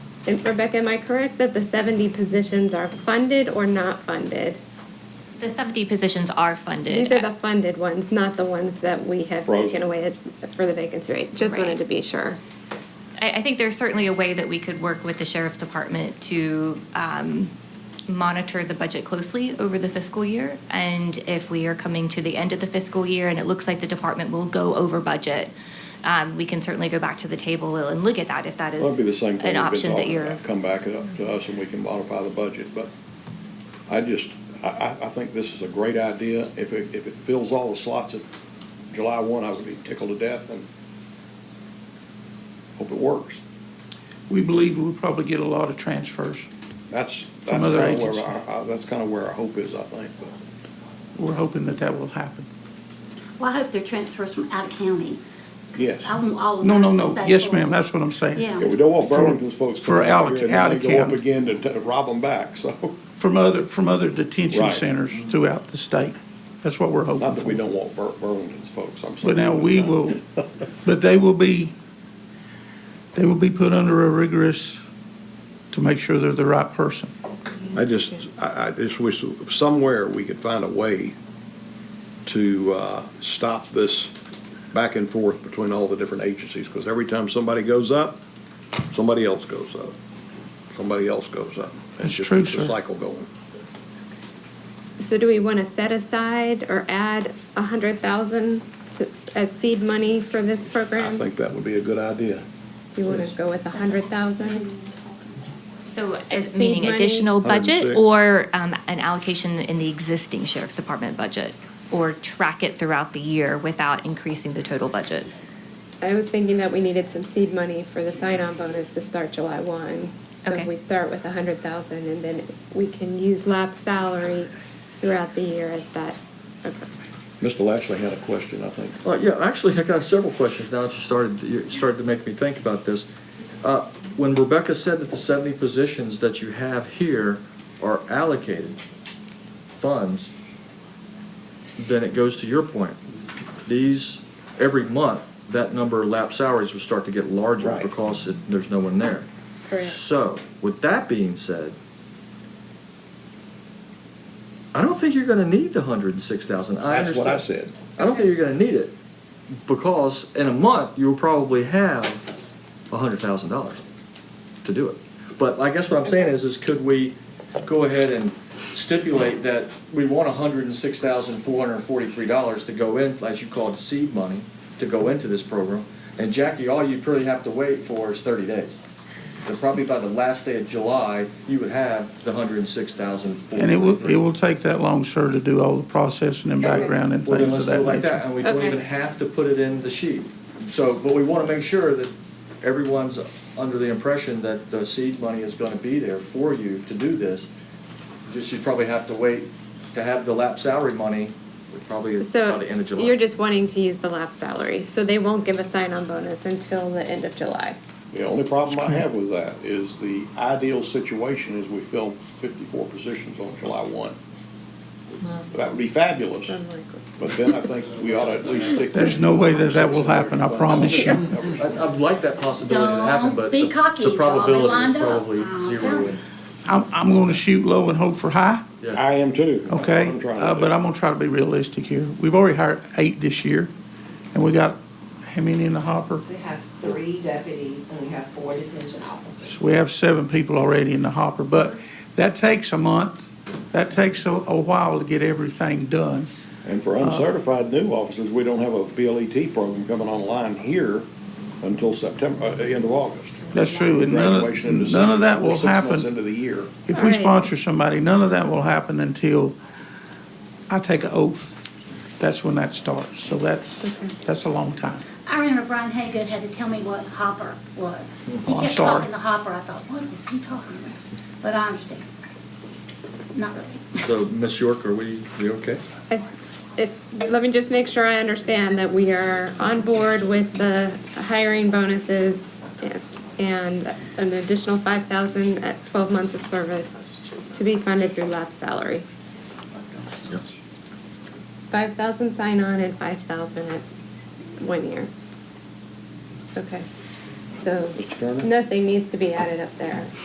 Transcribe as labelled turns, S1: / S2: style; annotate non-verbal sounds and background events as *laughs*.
S1: And Rebecca, am I correct that the 70 positions are funded or not funded?
S2: The 70 positions are funded.
S1: These are the funded ones, not the ones that we have
S3: Frozen.
S1: taken away as, for the vacancy rate. Just
S2: Right.
S1: wanted to be sure.
S2: I, I think there's certainly a way that we could work with the sheriff's department to um, monitor the budget closely over the fiscal year. And if we are coming to the end of the fiscal year and it looks like the department will go over budget, um, we can certainly go back to the table and look at that if that is
S3: That'd be the same
S2: an
S3: thing we've been
S2: option that
S3: talking
S2: you're.
S3: about. uh, Come back it up to us and we can modify the budget, but I just, I, I, I think this is a great idea. If it, if it fills all the slots at July one, I would be tickled to death and hope it works.
S4: We believe we'll probably get a lot of transfers.
S3: That's, that's
S4: From other
S3: kinda where,
S4: agencies.
S3: I- I- that's kinda where our hope is, I think, but
S4: We're hoping that that will happen.
S5: Well, I hope they're transfers from out of county.
S3: yes.
S5: I want all of
S4: No, no,
S5: us to
S4: no.
S5: stay
S4: Yes,
S5: forward.
S4: ma'am, that's what I'm saying.
S5: Yeah.
S3: Yeah, we don't want Burlington folks. to
S4: For
S3: come out here
S4: alloc- out
S3: and
S4: of
S3: then Go up
S4: county,
S3: again to, to rob them back, so, *laughs*
S4: from other, from other detention
S3: Right.
S4: centers throughout the state. That's what we're
S3: not that we
S4: hoping for.
S3: don't want Bur- Burlington's folks, I'm sorry.
S4: But now we will, but they will be, they will be put under a rigorous to make sure they're the right person.
S3: I just, I, I just wish somewhere we could find a way to, uh, stop this back and forth between all the different agencies, because every time somebody goes up, somebody else goes up, somebody else goes up. It
S4: That's
S3: just
S4: true,
S3: keeps the
S4: sir.
S3: Cycle going.
S1: So do we want to set aside or add 100,000 to- as seed money for this
S3: I
S1: program?
S3: think that would be a good idea.
S1: Do you want to go with 100,000?
S2: So,
S1: Seed
S2: as meaning
S1: money.
S2: additional budget
S3: 106.
S2: or um, an allocation in the existing sheriff's department budget? Or track it throughout the year without increasing the total budget?
S1: I was thinking that we needed some seed money for the sign-on bonus to start July 1. So if
S2: Okay.
S1: we start with 100,000 and then we can use lab salary throughout the year as that occurs.
S3: Mr. Lashley had a question, I think.
S6: Well, Uh, yeah, actually, I got several questions now that you started, you started to make me think about this. Uh, When Rebecca said that the seventy positions that you have here are allocated funds, then it goes to your point. These, every month, that number of lap salaries would start to get larger
S3: Right.
S6: because it- there's no one there. So, with that being said, I don't think you're gonna need the hundred and six thousand. I
S3: That's what I
S6: understand-
S3: said.
S6: I don't think you're gonna need it, because in a month, you'll probably have a hundred thousand dollars to do it. But I guess what I'm saying is, is could we go ahead and stipulate that we want a hundred and six thousand four hundred and forty-three dollars to go in, as you called seed money, to go into this program? And Jackie, all you really have to wait for is thirty days. And probably by the last day of July, you would have the hundred and six thousand.
S4: And it will, it will take that long, sir, to do all the processing and background and
S6: Well,
S4: things
S6: then
S4: of
S6: let's do
S4: that
S6: it like that,
S4: nature.
S6: and we don't
S1: Okay.
S6: even have to put it in the sheet. So, but we wanna make sure that everyone's under the impression that the seed money is gonna be there for you to do this. Just, you probably have to wait to have the lap salary money, which probably is by
S1: So
S6: the end of July.
S1: you're just wanting to use the lab salary, so they won't give a sign-on bonus until the end of July.
S3: The only problem I have with that is the ideal situation is we fill fifty-four positions on July one. That would be fabulous.
S1: Unlikely.
S3: But then I think we ought to at least stick.
S4: There's no way that that will happen, I promise you.
S6: I, I'd like that possibility to happen,
S5: Don't
S6: but
S5: be
S6: the
S5: cocky,
S6: the
S5: y'all. Be
S6: probability
S5: lined
S6: is
S5: up.
S6: probably
S5: I'm
S6: zero.
S5: telling
S6: and-
S4: I'm, I'm gonna shoot low and hope for high.
S6: yeah.
S3: I am too.
S4: Okay,
S3: I'm trying to
S4: uh,
S3: do.
S4: but I'm gonna try to be realistic here. We've already hired eight this year, and we got how many in the hopper?
S7: We have three deputies and we have four detention officers.
S4: So we have seven people already in the hopper, but that takes a month. That takes a, a while to get everything done.
S3: And
S4: uh,
S3: for uncertified new officers, we don't have a BLET program coming online here until September, uh, end of August.
S4: That's true, and none
S3: Graduation in
S4: of,
S3: December,
S4: none of that will
S3: six months
S4: happen.
S3: into the year.
S4: If we
S1: Right.
S4: sponsor somebody, none of that will happen until I take an oath. That's when that starts. So that's, that's a long time.
S5: I remember Brian Haygood had to tell me what hopper was.
S4: Oh,
S5: He
S4: I'm
S5: kept
S4: sorry.
S5: talking the hopper, I thought, what is he talking about? But I understand. Not really.
S6: So, Ms. York, are we, we okay?
S1: I- If, let me just make sure I understand that we are on board with the hiring bonuses and an additional five thousand at twelve months of service to be funded through lab salary.
S6: Yes.
S1: Five thousand sign-on and five thousand at one year. Okay. so
S8: Mr. Turner?
S1: nothing needs to be added up there.